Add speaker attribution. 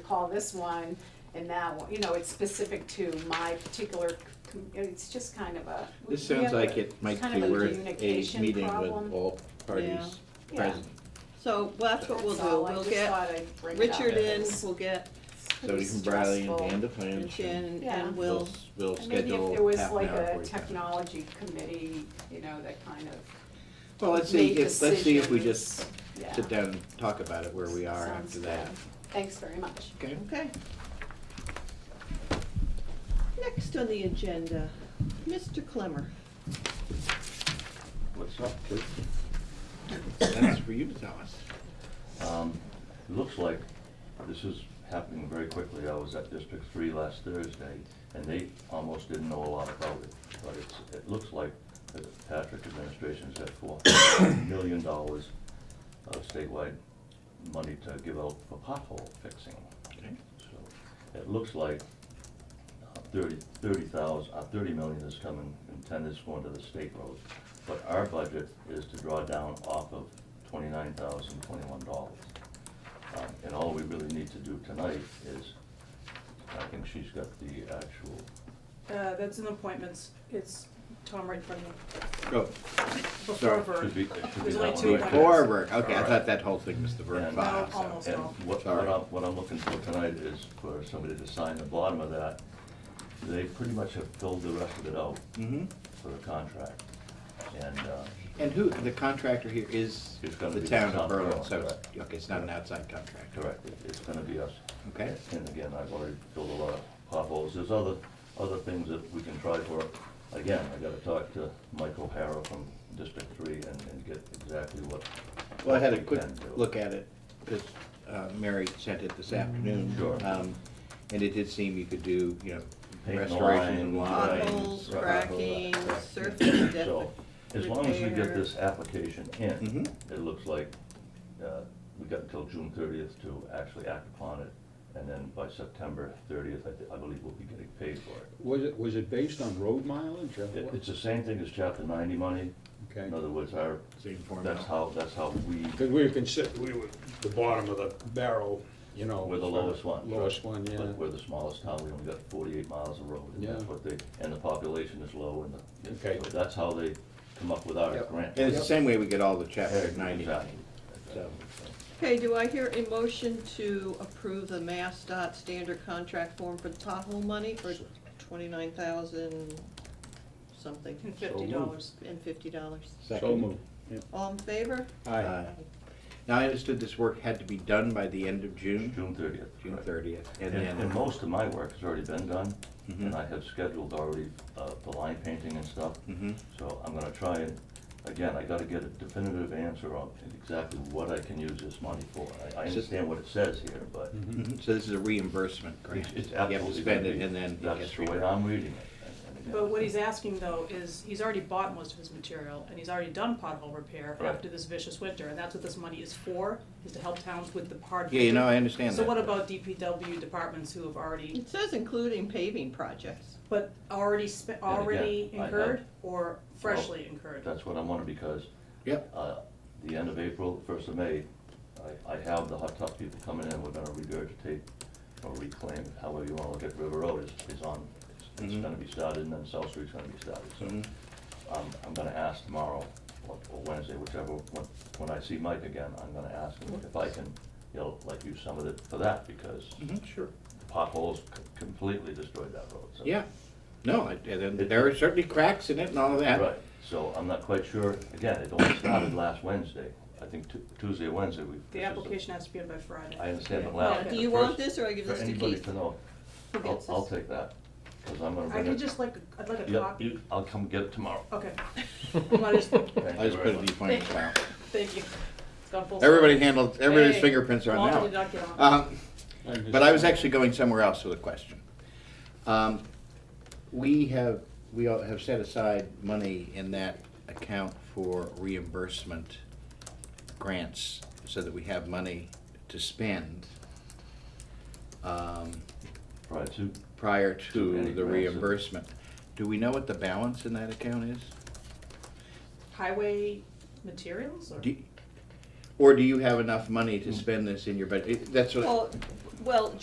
Speaker 1: call this one and that one, you know, it's specific to my particular, com- it's just kind of a. we-
Speaker 2: This
Speaker 1: we
Speaker 2: sounds
Speaker 1: have
Speaker 2: like
Speaker 1: a-
Speaker 2: it might
Speaker 1: kind
Speaker 2: be
Speaker 1: of a
Speaker 2: worth a
Speaker 1: communication
Speaker 2: meeting
Speaker 1: problem.
Speaker 2: with all parties
Speaker 1: Yeah.
Speaker 2: present.
Speaker 3: So, well, that's what we'll
Speaker 1: That's all.
Speaker 3: do,
Speaker 1: I
Speaker 3: we'll
Speaker 1: just
Speaker 3: get
Speaker 1: thought I'd bring it up.
Speaker 3: Richard in,
Speaker 1: It's
Speaker 3: we'll get
Speaker 2: So
Speaker 1: pretty
Speaker 2: we can Bradley and
Speaker 1: stressful.
Speaker 2: Dan to plan.
Speaker 3: and Shannon,
Speaker 1: Yeah.
Speaker 3: and we'll,
Speaker 2: We'll
Speaker 1: And maybe if
Speaker 2: schedule
Speaker 1: there was
Speaker 2: half an
Speaker 1: like
Speaker 2: hour
Speaker 1: a
Speaker 2: for you.
Speaker 1: technology committee, you know, that kind of,
Speaker 2: Well, let's see,
Speaker 1: made
Speaker 2: if- let's see if we just
Speaker 1: yeah.
Speaker 2: sit down and talk about it, where we are
Speaker 1: Sounds
Speaker 2: after that.
Speaker 1: good. Thanks very much.
Speaker 2: Okay?
Speaker 3: okay. Next on the agenda, Mr. Clemmer.
Speaker 4: What's up, kid?
Speaker 2: That's for you to tell us.
Speaker 4: Um, it looks like this is happening very quickly. I was at District Three last Thursday, and they almost didn't know a lot about it. But it's, it looks like the Patrick administration's got four million dollars of statewide money to give out for pothole fixing.
Speaker 2: Okay.
Speaker 4: So it looks like uh, thirty, thirty thousand, uh, thirty million is coming, and ten is going to the state road. But our budget is to draw down off of twenty-nine thousand, twenty-one dollars. Um, and all we really need to do tonight is, I think she's got the actual,
Speaker 5: Uh, that's an appointments, it's Tom right in front of me,
Speaker 2: Go.
Speaker 5: before
Speaker 2: Sorry.
Speaker 5: Vern.
Speaker 4: should be, it should be
Speaker 5: There's
Speaker 4: that one
Speaker 5: only two
Speaker 4: right there.
Speaker 5: appointments.
Speaker 2: Oh, Forward, okay, I
Speaker 4: Alright.
Speaker 2: thought that whole thing was the verb
Speaker 4: And-
Speaker 2: five,
Speaker 5: No, almost.
Speaker 2: so.
Speaker 4: And what, what
Speaker 2: Sorry.
Speaker 4: I'm, what I'm looking for tonight is for somebody to sign the bottom of that. They pretty much have filled the rest of it out
Speaker 2: Mhm.
Speaker 4: for a contract. And, uh,
Speaker 2: And who, the contractor here is
Speaker 4: It's gonna
Speaker 2: the
Speaker 4: be
Speaker 2: town
Speaker 4: the
Speaker 2: of
Speaker 4: town,
Speaker 2: Berlin,
Speaker 4: correct,
Speaker 2: so, it's-
Speaker 4: correct.
Speaker 2: okay, it's not an outside contractor.
Speaker 4: correct, it- it's gonna be us.
Speaker 2: Okay.
Speaker 4: And again, I've already filled a lot of potholes. There's other, other things that we can try for. Again, I gotta talk to Michael Harrow from District Three and, and get exactly what.
Speaker 2: Well, I had a
Speaker 4: what we
Speaker 2: quick
Speaker 4: can do. Mm-hmm.
Speaker 2: look at it, because Mary sent it this afternoon.
Speaker 4: Sure.
Speaker 2: Um, And it did seem you could do, you know,
Speaker 4: Paint
Speaker 2: restoration and
Speaker 4: lines,
Speaker 2: lines.
Speaker 3: potholes,
Speaker 4: right.
Speaker 3: cracking,
Speaker 2: Right.
Speaker 3: surface depth.
Speaker 4: So, as long as we get
Speaker 3: repair.
Speaker 4: this application in,
Speaker 2: Mhm.
Speaker 4: it looks like, uh, we got until June thirtieth to actually act upon it. And then by September thirtieth, I, thi- I believe we'll be getting paid for it.
Speaker 6: Was it, was it based on road mileage or
Speaker 4: It,
Speaker 6: what?
Speaker 4: it's the same thing as chapter ninety money.
Speaker 6: Okay.
Speaker 4: In other words, our,
Speaker 2: Same formula.
Speaker 4: that's how, that's how we,
Speaker 6: Because we were considered, we were the bottom of the barrel, you know.
Speaker 4: we're the lowest one.
Speaker 6: Lowest one, yeah.
Speaker 4: But we're the smallest town, we only got forty-eight miles of road, and that's
Speaker 6: Yeah.
Speaker 4: what they, and the population is low, and the,
Speaker 6: Okay.
Speaker 4: so that's how they come up with our
Speaker 6: Yep.
Speaker 4: grant.
Speaker 2: And it's the same way we get all the chapter
Speaker 4: Exactly.
Speaker 2: ninety. So-
Speaker 3: Okay, do I hear a motion to approve the Mass dot standard contract form for the pothole money for twenty-nine thousand something
Speaker 5: And
Speaker 6: So
Speaker 5: fifty
Speaker 6: moved.
Speaker 5: dollars.
Speaker 3: and fifty dollars?
Speaker 6: So
Speaker 2: Second.
Speaker 6: moved. Yeah.
Speaker 3: All in favor?
Speaker 6: Aye.
Speaker 2: Aye. Now, I understood this work had to be done by the end of June,
Speaker 4: June thirtieth.
Speaker 2: June thirtieth, and
Speaker 4: And, and
Speaker 2: then,
Speaker 4: most of my work has already been done,
Speaker 2: Mhm.
Speaker 4: and I have scheduled already, uh, the line painting and stuff.
Speaker 2: Mhm.
Speaker 4: So I'm gonna try and, again, I gotta get a definitive answer on exactly what I can use this money for. I, I understand what it says here, but
Speaker 2: Mhm. so this is a reimbursement grant.
Speaker 4: it's- it's
Speaker 2: You have to
Speaker 4: absolutely gonna
Speaker 2: spend it
Speaker 4: be,
Speaker 2: and then it
Speaker 4: that's
Speaker 2: gets
Speaker 4: the way
Speaker 2: reimbursed.
Speaker 4: I'm reading it. and- and again,
Speaker 5: But what he's asking though is, he's already bought most of his material, and he's already done pothole repair
Speaker 4: Right.
Speaker 5: after this vicious winter, and that's what this money is for, is to help towns with the hard.
Speaker 2: Yeah, you know, I
Speaker 5: winter.
Speaker 2: understand
Speaker 5: So
Speaker 2: that.
Speaker 5: what about DPW departments who have already,
Speaker 3: It says including paving projects.
Speaker 5: but already spent,
Speaker 4: again,
Speaker 5: already
Speaker 4: I have-
Speaker 5: incurred, or freshly incurred?
Speaker 4: That's what I'm on, because
Speaker 2: Yep,
Speaker 4: uh, the end of April, first of May, I, I have the hot top people coming in, we're gonna regurgitate or reclaim, however you wanna look at River Road is, is on, it's-
Speaker 2: Mhm.
Speaker 4: it's gonna be started, and then South Street's gonna be started, so.
Speaker 2: Mhm.
Speaker 4: I'm, I'm gonna ask tomorrow, or or Wednesday, whichever, when, when I see Mike again, I'm gonna ask him if I can, you know, like use some of it for that, because
Speaker 2: Mhm, sure.
Speaker 4: the potholes c- completely destroyed that road, so.
Speaker 2: Yeah, no, I- and then there are certainly cracks in it and all of that.
Speaker 4: Right, so I'm not quite sure, again, it only started last Wednesday, I think Tu- Tuesday, or Wednesday, we.
Speaker 5: The
Speaker 4: this is
Speaker 5: application has to be in by Friday.
Speaker 4: I understand, but
Speaker 3: Now,
Speaker 4: Lau.
Speaker 3: do you want this or I give this
Speaker 4: For
Speaker 3: to
Speaker 4: anybody
Speaker 3: Keith?
Speaker 4: to know,
Speaker 3: Who
Speaker 4: I'll,
Speaker 3: gets
Speaker 4: I'll
Speaker 3: this?
Speaker 4: take that, because I'm gonna
Speaker 5: I
Speaker 4: bring
Speaker 5: could
Speaker 4: it.
Speaker 5: just like, I'd like a
Speaker 4: Yep,
Speaker 5: copy.
Speaker 4: you- I'll come get it tomorrow.
Speaker 3: Oh.
Speaker 5: Okay. Well, I just-
Speaker 4: Thank
Speaker 2: I
Speaker 4: you
Speaker 2: just
Speaker 4: very
Speaker 2: put it in
Speaker 4: much.
Speaker 2: the finance file.
Speaker 5: Thank you. It's gone full circle.
Speaker 2: Everybody handled, everybody's
Speaker 5: Hey,
Speaker 2: fingerprints are
Speaker 5: Walter
Speaker 2: on
Speaker 5: did
Speaker 2: now.
Speaker 5: not get on.
Speaker 2: Um,
Speaker 6: just-
Speaker 2: But I was actually going somewhere else with a question. Um, We have, we all have set aside money in that account for reimbursement grants so that we have money to spend um,
Speaker 4: Right, so,
Speaker 2: prior
Speaker 4: To any
Speaker 2: to the
Speaker 4: grants.
Speaker 2: reimbursement. Do we know what the balance in that account is?
Speaker 5: Highway materials or?
Speaker 2: Do- Or do you have enough money to spend this in your budget? That's what.
Speaker 3: Well, well,